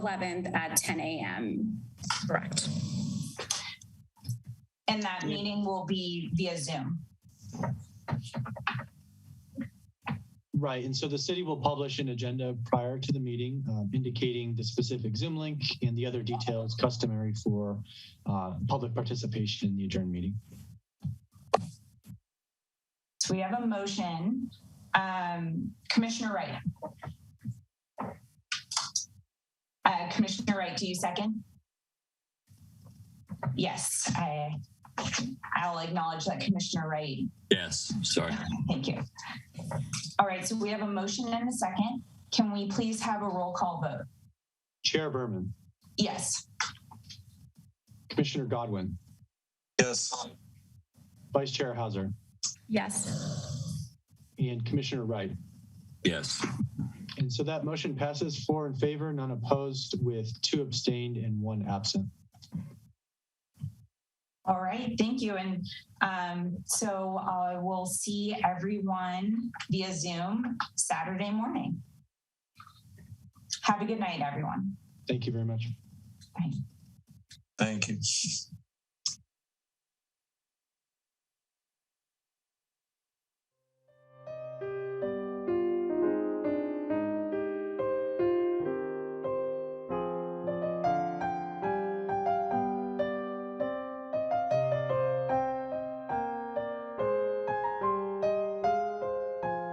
11th at 10 a.m. Correct. And that meeting will be via Zoom. Right, and so the city will publish an agenda prior to the meeting uh, indicating the specific Zoom link and the other details customary for uh, public participation in the adjourned meeting. So we have a motion. Um, Commissioner Wright. Uh, Commissioner Wright, do you second? Yes, I, I'll acknowledge that Commissioner Wright. Yes, sorry. Thank you. All right, so we have a motion and a second. Can we please have a roll call vote? Chair Berman, Yes. Commissioner Godwin, Yes. Vice Chair Hauser, Yes. and Commissioner Wright. Yes, And so that motion passes four in favor, none opposed, with two abstained and one absent. All right, thank you. And um, so I will see everyone via Zoom Saturday morning. Have a good night, everyone. Thank you very much. Thank you.